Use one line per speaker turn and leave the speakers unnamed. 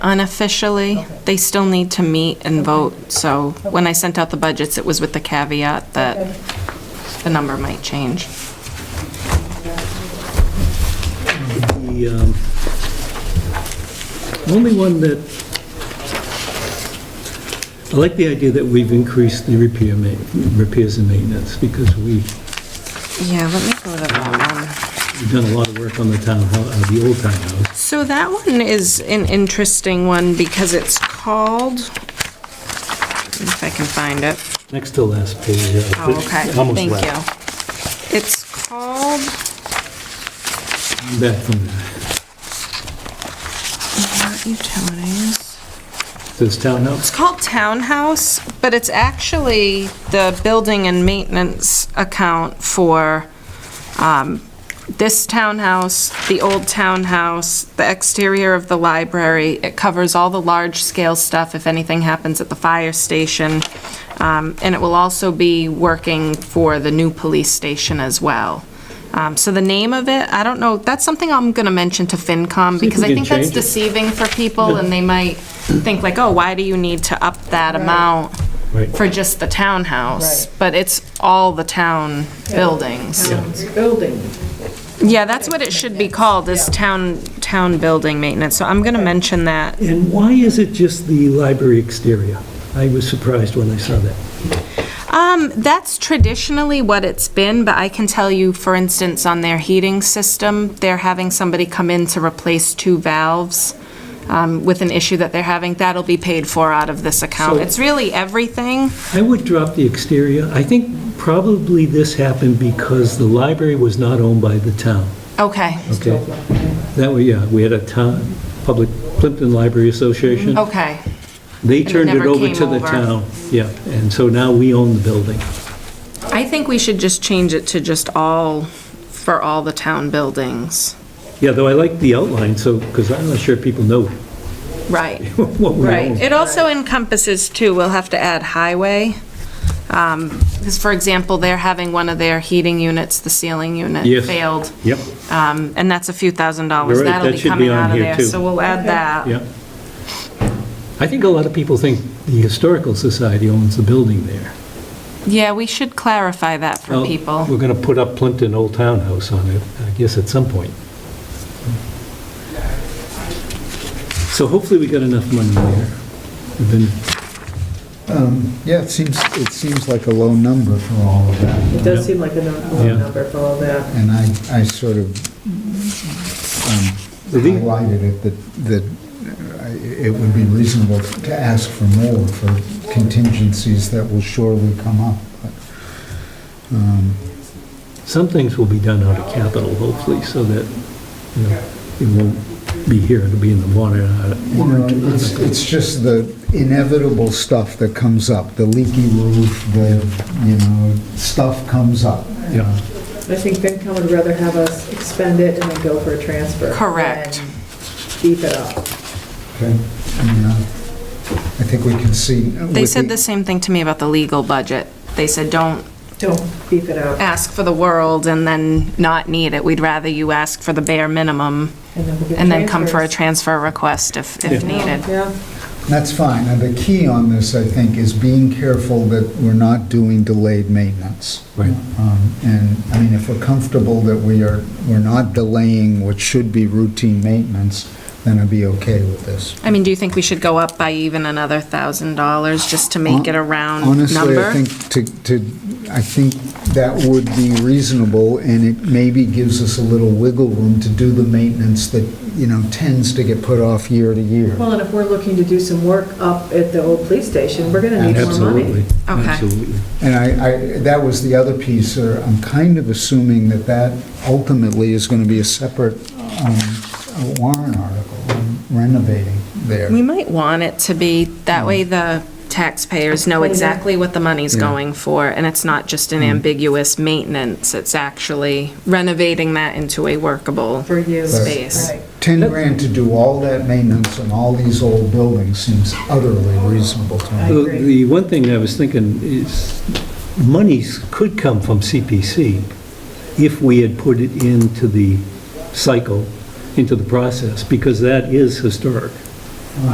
unofficially. They still need to meet and vote, so when I sent out the budgets, it was with the caveat that the number might change.
The um, only one that, I like the idea that we've increased the repair ma, repairs and maintenance, because we,
Yeah, let me go to that one.
we've done a lot of work on the town, hou- uh, the old townhouse.
So that one is an interesting one because it's called, if I can find it.
Next to last page. uh,
Oh, okay,
almost
thank
left.
you. It's called,
Back from there.
not utilities.
Says townhouse,
It's called Townhouse, but it's actually the building and maintenance account for um, this townhouse, the old townhouse, the exterior of the library. It covers all the large-scale stuff if anything happens at the fire station. Um, And it will also be working for the new police station as well. Um, So the name of it, I don't know, that's something I'm going to mention to FinCom
we
because I
can
think that's
change it.
the deceiving for people, and they might think like, oh, why do you need to up that amount
right.
for just the townhouse?
Right.
But it's all the town buildings.
Building.
Yeah, that's what it should be called, is town, town building maintenance, so I'm gonna mention that.
And why is it just the library exterior? I was surprised when I saw that.
Um, that's traditionally what it's been, but I can tell you, for instance, on their heating system, they're having somebody come in to replace two valves um, with an issue that they're having, that'll be paid for out of this account.
So-
It's really everything.
I would drop the exterior. I think probably this happened because the library was not owned by the town,
Okay,
okay? That way, yeah, we had a town, public Plimpton Library Association.
okay.
They
Oh, it
turned it
never
over
came
to the
over.
town. Yeah, and so now we own the building.
I think we should just change it to just all, for all the town buildings.
Yeah, though I like the outline, so, because I'm not sure people know
Right,
what we
right.
own.
It also encompasses too, we'll have to add highway. Because for example, they're having one of their heating units, the ceiling unit
Yes.
failed.
Yep,
Um, And that's a few thousand dollars.
You're right,
That'll
that
be
should be
coming
on
out of
here,
there.
too.
So we'll add that.
yep. I think a lot of people think the Historical Society owns the building there.
Yeah, we should clarify that for
Well,
people.
We're going to put up Plimpton Old Town House on it, I guess, at some point. So hopefully we got enough money there. We've been,
Yeah, it seems, it seems like a low number for all of that.
It does seem like a num-
Yeah.
low number for all that.
And I, I sort of um,
The thing-
highlighted it that, that I- it would be reasonable to ask for more for contingencies that will surely come up. But, um,
some things will be done out of capital, hopefully, so that, you know, it won't be here, it'll be in the water.
You know, it's, it's just the inevitable stuff that comes up, the leaky roof, the, you know, stuff comes up.
Yeah.
I think FinCom would rather have us expend it and then go for a transfer.
Correct.
than Beef it up.
Okay. And, uh, I think we can see.
They
with
said
the-
the same thing to me about the legal budget. They said, don't
Don't beef it up
ask for the world and then not need it. We'd rather you ask for the bare minimum
and then we'll get
and then come for a
transfers.
transfer request if, if needed.
Yeah,
That's fine. And the key on this, I think, is being careful that we're not doing delayed maintenance.
Right.
Um, And, I mean, if we're comfortable that we are, we're not delaying what should be routine maintenance, then I'd be okay with this.
I mean, do you think we should go up by even another thousand dollars just to make it a round
Honestly, I
number?
think to, to, I think that would be reasonable, and it maybe gives us a little wiggle room to do the maintenance that, you know, tends to get put off year to year.
well, and if we're looking to do some work up at the old police station, we're gonna need more
Absolutely,
money.
Okay.
absolutely.
And I, I, that was the other piece, or I'm kind of assuming that that ultimately is going to be a separate um, warrant article, on renovating there.
We might want it to be, that way the taxpayers know exactly what the money's going for and it's not just
Mm.
an ambiguous maintenance. It's actually renovating that into a workable
For you.
Space.
Right.
10 grand to do all that maintenance on all these old buildings seems utterly reasonable to me.
The
agree.
the one thing I was thinking is, monies could come from CPC if we had put it into the cycle, into the process, because that is historic.